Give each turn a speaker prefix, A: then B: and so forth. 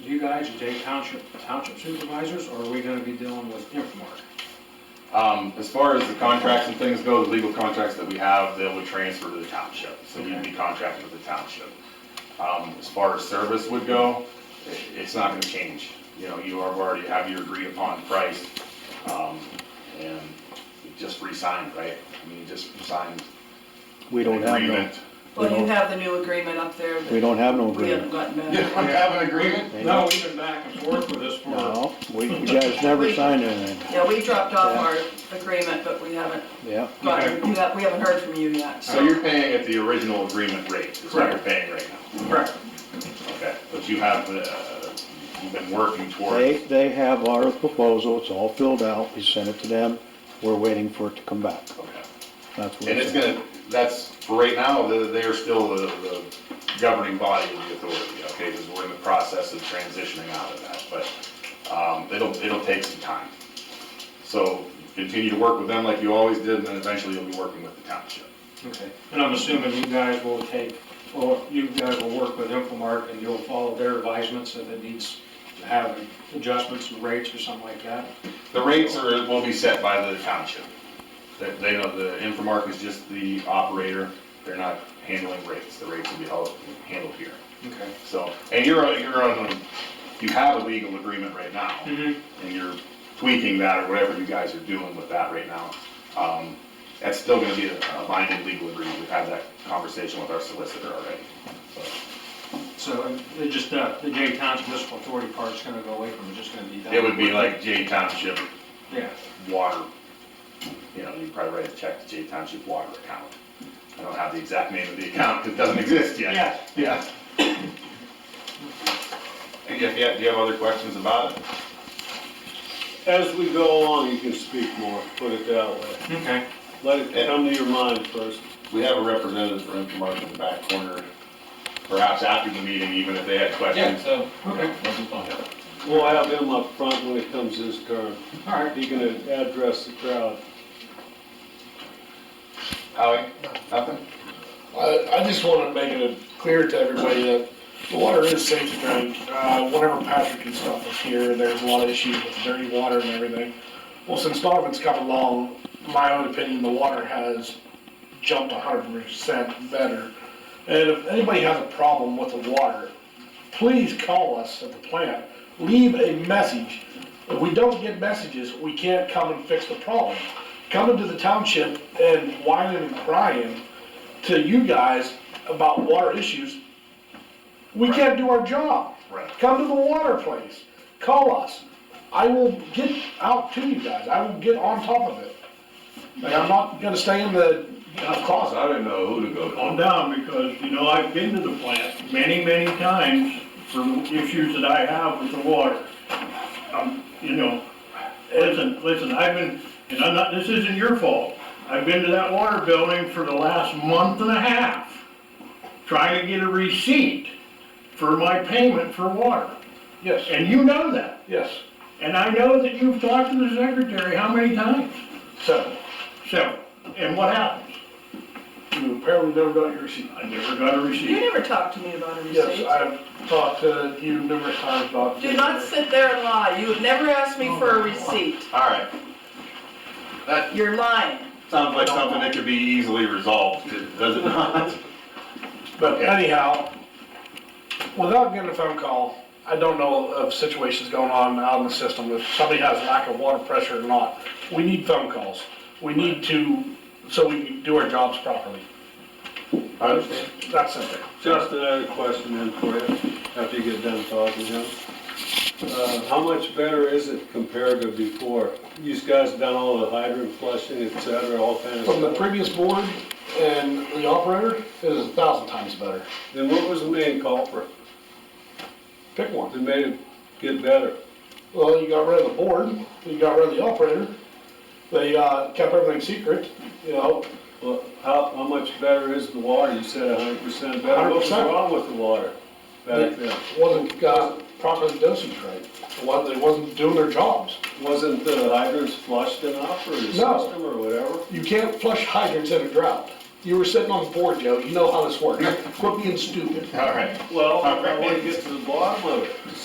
A: you guys, you take township, township supervisors, or are we gonna be dealing with Infomark?
B: Um, as far as the contracts and things go, the legal contracts that we have, they would transfer to the township, so you'd be contracted with the township. Um, as far as service would go, i it's not gonna change, you know, you are, already have your agreed upon price, um, and you just re-signed, right? I mean, you just signed
C: We
B: an
C: don't have no,
B: agreement.
D: Well, you have the new agreement up there,
C: we
D: but
C: don't have no
D: we haven't
C: agreement.
D: gotten
E: Yeah,
D: that.
E: I have an agreement.
C: They
A: No, we've been back and forth with this for,
C: No, we, you guys never signed anything,
D: Yeah, we dropped off
C: Yeah.
D: our agreement, but we haven't
C: yeah.
D: gotten, you ha- we haven't heard from you yet.
B: So you're paying at the original agreement rate, is what you're paying right now?
A: Correct.
B: Okay, but you have, uh, you've been working toward,
C: They, they have our proposal, it's all filled out, we sent it to them, we're waiting for it to come back.
B: okay.
C: That's what
B: And
C: it's
B: it's gonna, that's, for right now, the- they are still the the governing body of the authority, okay? Because we're in the process of transitioning out of that, but um, it'll, it'll take some time. So continue to work with them like you always did, and then eventually you'll be working with the township.
A: okay, and I'm assuming you guys will take, well, you guys will work with Infomark and you'll follow their advisements if it needs to have adjustments and rates or something like that.
B: The rates are, will be set by the township. They- They know, the Infomark is just the operator, they're not handling rates. The rates will be held- handled here.
A: Okay.
B: So, and you're, on- you're on, you have a legal agreement right now.
A: Mm-hmm.
B: and you're tweaking that or whatever you guys are doing with that right now, um, that's still gonna be a a binding legal agreement. We've had that conversation with our solicitor already.
A: So, uh, it just, uh, the J Township Municipal Authority part's gonna go away from it, it's just gonna be done.
B: It would be like J Township
A: Yeah,
B: Water, you know, you probably write a check to J Township Water account. I don't have the exact name of the account, 'cause it doesn't exist yet.
A: Yeah.
B: Yeah. And if you have, do you have other questions about it?
F: As we go along, you can speak more, put it that way.
A: okay,
F: Let it come to your mind first.
B: We have a representative for Infomark in the back corner, perhaps after the meeting, even if they had
E: Yeah,
B: questions.
E: so,
A: okay,
E: that'll be fine.
F: We'll have him up front when it comes his turn.
A: all right.
F: He can address the crowd.
B: Howie, nothing?
G: I, I just want to make it clear to everybody that the water is safe to drink. Uh, whenever Patrick and stuff was here, there was a lot of issues with dirty water and everything. Well, since Donovan's come along, my own opinion, the water has jumped hundred percent better. And if anybody has a problem with the water, please call us at the plant. Leave a message. If we don't get messages, we can't come and fix the problem. Coming to the township and whining and crying to you guys about water issues, we can't do our job.
B: Right.
G: Come to the water place, call us. I will get out to you guys, I will get on top of it. Like, I'm not gonna stay in the uh, closet.
B: I didn't know who to go
H: calm down, because, you know, I've been to the plant many, many times for issues that I have with the water. Um, you know, listen, listen, I've been, and I'm not, this isn't your fault. I've been to that water building for the last month and a half, trying to get a receipt for my payment for water,
G: Yes,
H: and you know that.
G: yes,
H: And I know that you've talked to the secretary how many times?
G: so,
H: Several. And what happens?
G: you apparently never got your receipt.
H: I never got a
D: You
H: receipt.
D: never talked to me about a
G: Yes,
D: receipt.
G: I've talked to you numerous times about.
D: Do not sit there and lie. You have never asked me for a receipt.
B: All right. That
D: You're lying.
B: sounds like something that could be easily resolved, does it not?
G: But anyhow, without getting a phone call, I don't know of situations going on out in the system, if somebody has lack of water pressure or not. We need phone calls. We need to, so we can do our jobs properly.
B: I understand.
G: That's simple.
F: Justin, I had a question then for you, after you get done talking to him. Uh, How much better is it compared to before? You guys done all the hydrant flushing, et cetera, all kind of
G: From the
F: stuff.
G: previous board and the operator, it is a thousand times better.
F: Then what was the main culprit
G: Pick one.
F: that made it get better?
G: Well, you got rid of the board, you got rid of the operator, they, uh, kept everything secret, you know,
F: Well, how, how much better is the water? You said hundred percent better. What was
G: 100%.
F: wrong with the water back then?
G: wasn't got properly dosage right. Was, they wasn't doing their jobs.
F: Wasn't the hydrants flushed enough or the
G: No.
F: system or whatever?
G: You can't flush hydrants in a drought. You were sitting on the board, Joe, you know how this works. Quit being stupid.
B: All right.
F: Well, I want to get to the bottom of it.